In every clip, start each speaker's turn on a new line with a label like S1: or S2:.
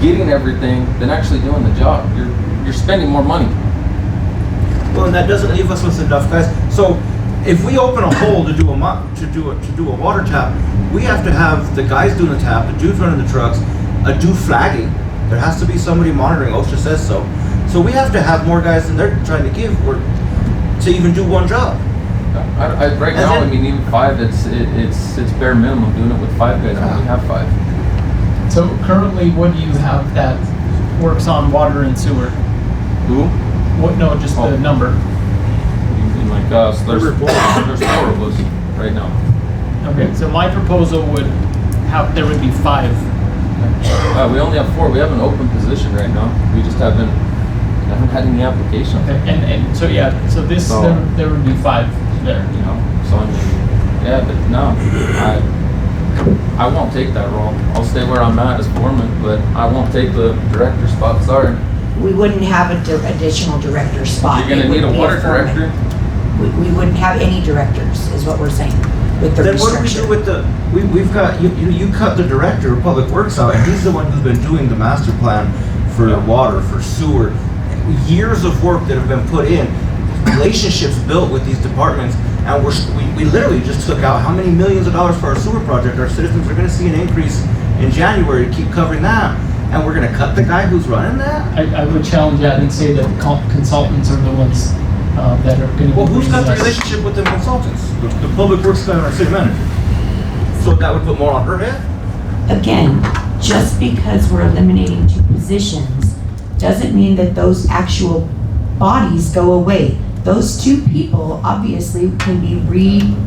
S1: getting everything than actually doing the job. You're you're spending more money.
S2: Well, and that doesn't leave us with enough guys. So if we open a hole to do a mo- to do a, to do a water tap, we have to have the guys doing the tap, the dude running the trucks, a dude flagging. There has to be somebody monitoring. OSHA says so. So we have to have more guys than they're trying to give or to even do one job.
S1: I, I, right
S2: As
S1: now, I
S2: in-
S1: mean, even five, it's it, it's it's bare minimum doing it with five guys. I only
S2: Ah.
S1: have five.
S3: So currently, what do you have that works on water and sewer?
S1: Who?
S3: What, no, just
S1: Oh.
S3: the number.
S1: You mean like us? There's
S2: There were
S1: four.
S2: four.
S1: there's four of us right now.
S3: Okay, so my proposal would have, there would be five.
S1: Uh, we only have four. We have an open position right now. We just haven't haven't had any application.
S3: Okay, Oh. And, and, so yeah, so this,
S1: So-
S3: there there would be five there.
S1: You know, so I mean, yeah, but no, I I won't take that role. I'll stay where I'm at as foreman, but I won't take the director spot. Sorry,
S4: We wouldn't have a di- additional director spot.
S1: you're gonna
S4: It would
S1: need a
S4: be
S1: water
S4: foreman.
S1: director.
S4: We, we wouldn't have any directors, is what we're saying, with the
S2: Then what do we do
S4: restriction.
S2: with the, we, we've got, you, you, you cut the director of public works out, and he's the one who's been doing the master plan for
S1: Yeah.
S2: water, for sewer. Years of work that have been put in, relationships built with these departments, and we're, s- we, we literally just took out how many millions of dollars for our sewer project, our citizens are gonna see an increase in January to keep covering that, and we're gonna cut the guy who's running that?
S3: I, I would challenge that and say that the con- consultants are the ones uh, that are gonna be.
S2: Well, who's got the
S3: bringing us-
S2: relationship with the consultants? The, the public works guy and our city manager. So that would put more on her head?
S4: Again, just because we're eliminating two positions, doesn't mean that those actual bodies go away. Those two people obviously can be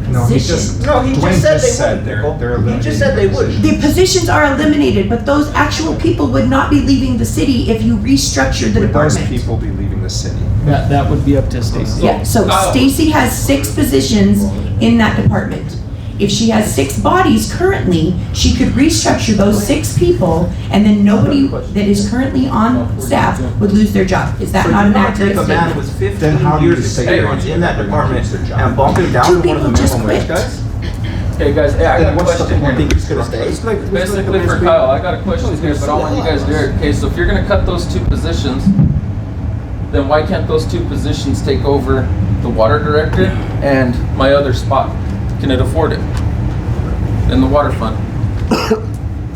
S5: No, he just,
S4: repositioned.
S2: No, he just said
S5: Dwayne
S2: they
S5: just said
S2: wouldn't, Nicole.
S5: they're, they're
S2: He
S5: eliminating.
S2: just said they wouldn't.
S4: The positions are eliminated, but those actual people would not be leaving the city if you restructured the
S5: Would those
S4: department.
S5: people be leaving the city?
S3: That, that would be up to Stacy.
S4: Yeah, so
S1: Oh.
S4: Stacy has six positions in that department. If she has six bodies currently, she could restructure those six people and then nobody that is currently on staff would lose their job. Is that
S2: So
S4: not
S2: you
S4: an
S2: want to
S4: accurate
S2: take a man
S4: statement?
S2: with fifteen
S5: Then how do you
S2: years
S5: say you're
S2: experience
S5: gonna
S2: in that
S5: give them
S2: department
S5: their job?
S2: and bump him
S4: Two
S2: down to one of the
S4: people just
S2: minimum wage
S4: quit.
S2: guys?
S1: Hey guys, hey, I got a question here.
S5: It's like- it's like-
S1: Basically for Kyle, I got a question here, but I want you guys to hear it. Okay, so if you're gonna cut those two positions, then why can't those two positions take over the water director and my other spot? Can it afford it? In the water fund?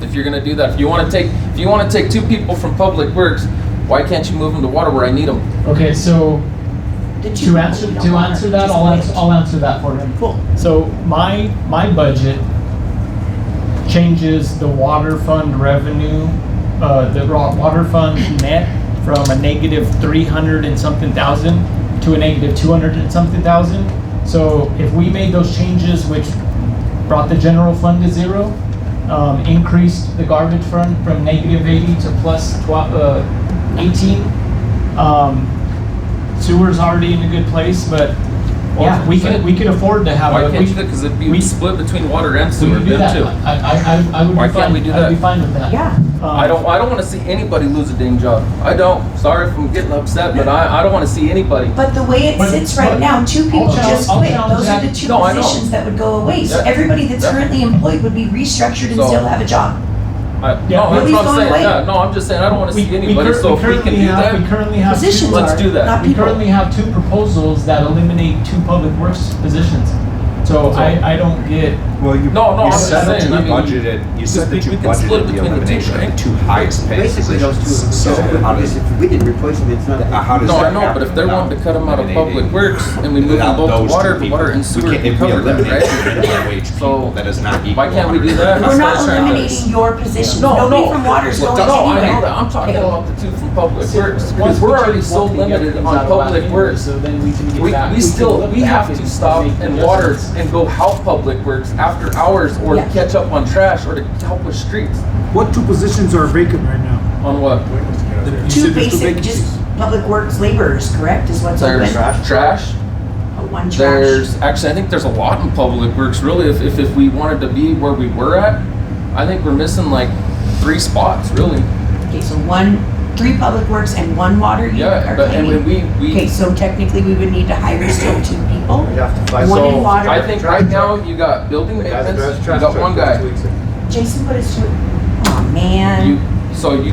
S1: If you're gonna do that, if you wanna take, if you wanna take two people from public works, why can't you move them to water where I need them?
S3: Okay, so
S4: The two
S3: to
S4: people
S3: answer,
S4: we don't
S3: to
S4: want
S3: answer
S4: are
S3: that,
S4: just
S3: I'll answer,
S4: quit.
S3: I'll answer that for him.
S4: Cool.
S3: So my, my budget changes the water fund revenue, uh, the raw water fund net from a negative three hundred and something thousand to a negative two hundred and something thousand. So if we made those changes, which brought the general fund to zero, um, increased the garbage fund from negative eighty to plus twelve, uh, eighteen, um, sewer's already in a good place, but yeah, we could, we could afford to have
S1: Why
S3: a.
S1: can't
S3: Uh, we-
S1: you do that? Cause it'd
S3: we-
S1: be split between water and
S3: we
S1: sewer,
S3: can do
S1: them
S3: that.
S1: too.
S3: I, I, I, I would
S1: Why
S3: be
S1: can't
S3: fine.
S1: we do
S3: I'd be
S1: that?
S3: fine with that.
S4: Yeah.
S3: Um,
S1: I don't. I don't want to see anybody lose a dang job. I don't. Sorry if I'm getting upset, but I, I don't want to see anybody.
S4: But the way it
S3: But-
S4: sits right
S3: but-
S4: now, two people
S3: I'll challenge-
S4: just
S3: I'll
S4: quit.
S3: challenge
S4: Those are
S3: that.
S4: the two
S1: No, I know.
S4: positions that would go away. So
S1: Yeah.
S4: everybody that's
S1: Yeah.
S4: currently employed would be restructured and
S1: So-
S4: still have a job.
S1: I,
S3: Yeah,
S1: no, that's
S4: nobody's
S1: what I'm
S4: going
S1: saying.
S4: away.
S1: Yeah, no, I'm just saying I don't want to
S3: We,
S1: see
S3: we,
S1: anybody.
S3: cur-
S1: so
S3: we
S1: if we
S3: currently
S1: can do
S3: have, we
S1: that,
S3: currently have
S4: Positions
S3: two,
S1: Let's
S4: are,
S1: do that.
S4: not
S3: we
S4: people.
S3: currently have two proposals that eliminate two public works positions. So I, I don't get
S5: Well, you,
S1: No, no, I'm
S5: you
S1: just
S5: said that
S1: saying,
S5: you
S1: I mean,
S5: budgeted, you said
S1: we-
S5: that you
S1: we can split
S5: budgeted the
S1: between the two,
S5: elimination
S1: right?
S5: of two highest paid
S6: Basically, those two,
S5: positions. So how does,
S6: because if we didn't replace them, it's not.
S5: uh, how does
S1: no,
S5: that
S1: I know.
S5: happen
S1: But if they're wanting to cut them out of public
S5: eliminating-
S1: works and we move them
S5: without
S1: both
S5: those
S1: to
S5: two
S1: water,
S5: people?
S1: water and sewer,
S5: We can't, if we
S1: cover that,
S5: eliminate two
S1: right?
S5: minimum wage
S1: So,
S5: people, that is not equal.
S1: why can't we do
S5: 100%.
S1: that?
S4: We're not
S1: That's what I'm trying to-
S4: eliminating your position.
S1: No,
S4: Nobody
S1: no.
S4: from water's
S1: Well,
S4: going
S1: No, I know that.
S4: anywhere.
S1: I'm talking about the two from public works. Because
S3: Once
S1: we're already so limited on public works.
S3: So then we can get
S1: We,
S3: back.
S1: we still, we have to stop and
S3: and
S1: water and go help public works after hours or to
S4: Yeah.
S1: catch up on trash or to help with streets.
S7: What two positions are vacant right now?
S1: On what?
S7: You said
S4: Two
S7: there's
S4: basic,
S7: vacancies.
S4: just public works laborers, correct, is what's open?
S1: There's
S2: Trash.
S1: trash.
S4: Oh, One trash.
S1: There's, actually, I think there's a lot in public works, really, if, if, if we wanted to be where we were at. I think we're missing like three spots, really.
S4: Okay, so one, three public works and one water you
S1: Yeah,
S4: are
S1: but, and when
S4: claiming.
S1: we,
S4: Okay,
S1: we,
S4: so technically we would need to hire still two people.
S6: We'd have to find
S4: One in
S1: so,
S4: water.
S1: I think right now, you got building
S6: the guy that
S1: maintenance,
S6: drives
S1: you
S6: trash
S1: got one
S6: trucks
S1: guy.
S6: last week.
S4: Jason, what is two? Oh, man.
S1: You, so you